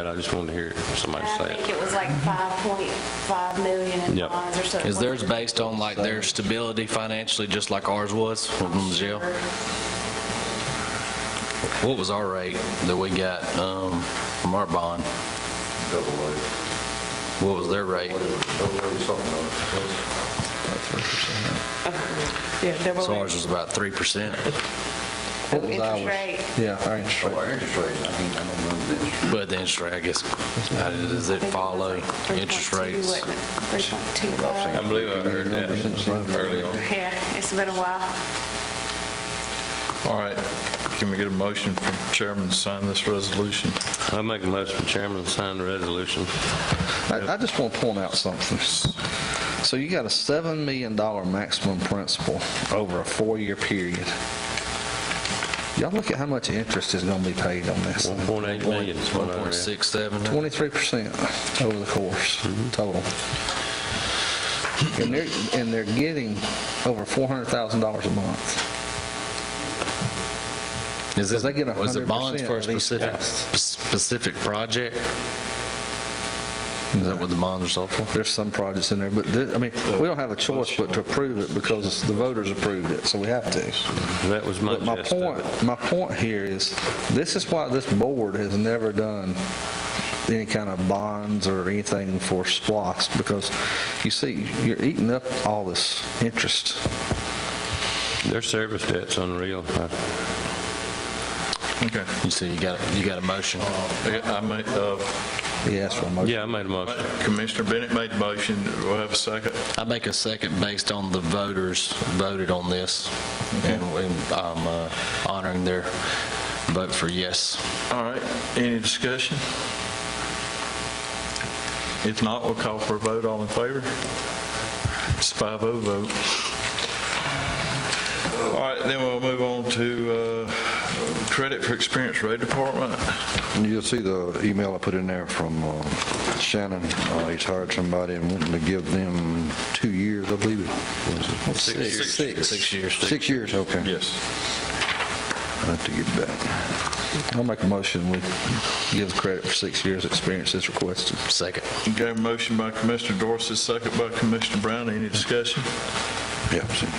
And I just wanted to hear somebody And say I think it. it was like 5.5 million in Yep. bonds or something. Is theirs based on like their stability financially, just like ours was from the jail? What was our rate that we got um, from our bond? double A, What was their rate? double A something like Yeah, double So A. ours was about 3%, What was Interest ours? rate. Yeah, our interest that. Our interest rates, I mean, I don't know the interest. but the interest rate, I guess, how does it follow interest rates? 3.25. I believe I heard that early on. Yeah, it's been a while. All right, can we get a motion from chairman to sign this resolution? I make a motion for chairman to sign the resolution. I, I just want to point out something. So you got a $7 million maximum principal over a four-year period. Y'all look at how much interest is going to be paid on this. 1.8 million is what I read. 1.67? 23% over the course total. And they're, and they're getting over $400,000 a month. Is Because it, they get 100%. was it bonds for a of these specific, costs. specific project? Is that what the bonds are sold for? There's some projects in there, but, thi- I mean, we don't have a choice but to approve it because the voters approved it, so we have to. That was my But my gist of it. point, my point here is, this is why this board has never done any kind of bonds or anything for SPOS, because you see, you're eating up all this interest. Their service debt's unreal. I- Okay. You see, you got, you got a motion. Okay, I ma- uh, Yeah, that's what I'm. Yeah, I made a motion. Commissioner Bennett made the motion, we'll have a second. I make a second based on the voters voted on this, and and I'm uh, honoring their vote for yes. All right, any discussion? If not, we'll call for a vote, all in favor? It's 5-0 vote. All right, then we'll move on to uh, credit for experience rate department. And you'll see the email I put in there from uh, Shannon. Uh, He's hired somebody and wanting to give them two years, I believe it was. it? Six. Six years. Six years, okay. Yes. I have to get back. I'll make a motion, we give credit for six years' experience as requested. Second. Okay, motion by Commissioner Dorsey, second by Commissioner Brown, any discussion? Yeah, I've seen it.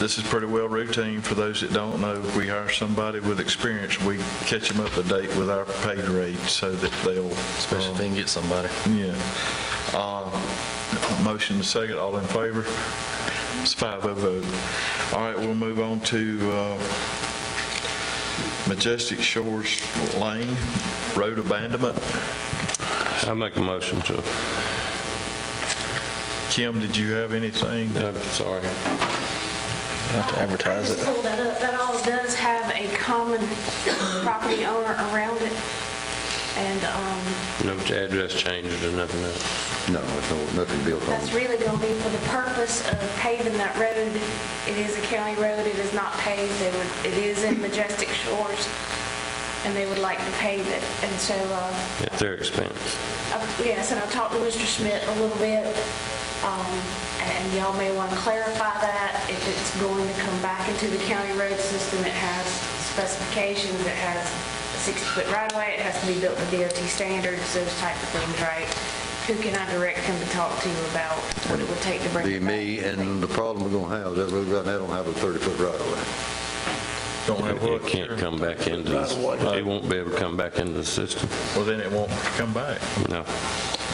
This is pretty well routine, for those that don't know, we hire somebody with experience, we catch them up to date with our pay grade so that they'll. Especially if um, they can get somebody. Yeah. Uh, Motion to second, all in favor? It's five of vote. All right, we'll move on to uh, Majestic Shores Lane Road Abandonment. I make a motion to, Kim, did you have anything? I'm sorry. Have to advertise Just it. pull that up. That all does have a common property owner around it. And um, No address changes or nothing else. No, there's no, nothing built on that's Oh. it. really going to be for the purpose of paving that road. It is a county road, it is not paved, They would- it is in majestic shores, and they would like to pave it. And so, uh, At their expense. I've- yes, and I talked to Mr. Schmidt a little bit, um, and y'all may want to clarify that, if it's going to come back into the county road system, it has specifications, it has a 60-foot right-of-way, it has to be built to DOT standards, those type of things, right? Who can I direct him to talk to about what it would take to bring Be it back? me, and the problem we're gonna have, is that road right now don't have a 30-foot right-of-way. Don't have It what? can't come back into, the- it won't be able to come back into the system. Well, then it won't come back. No.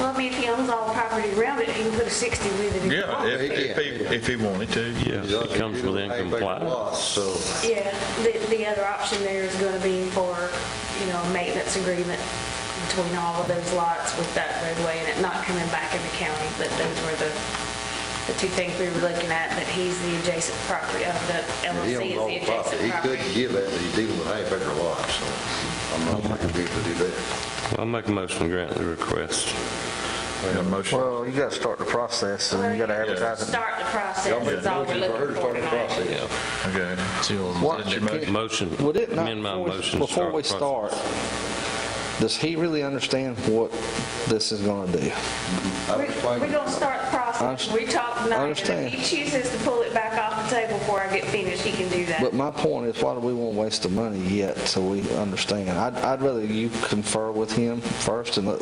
Well, I mean, if he owns all the property around it, he can put a 60 with it. if he Yeah, wants. if- if he- if he wanted to, yeah. Yes, it comes within compliance. So, Yeah, the, the other option there is gonna be for, you know, a maintenance agreement between all of those lots with that roadway and it not coming back in the county, but those were the, the two things we were looking at, that he's the adjacent property, of the he LLC owns is all the the property. adjacent He could property. give that, but he's dealing with half-acre lots, so I'm not gonna be able to do that. I'll make a motion to grant the request. A motion. Well, you gotta start the process and you gotta advertise it. Start the process, Y'all made is all we're motions for her looking to for start the tonight. process. Okay. So you'll- What- Motion, Would it not, amend my before- motion. to before we the process. start, Does he really understand what this is going to do? We're going to start the process. I- We talked I tonight, and understand. if he chooses to pull it back off the table before I get finished, he can do that. But my point is, why do we want to waste the money yet so we understand? I'd, I'd rather you confer with him first and let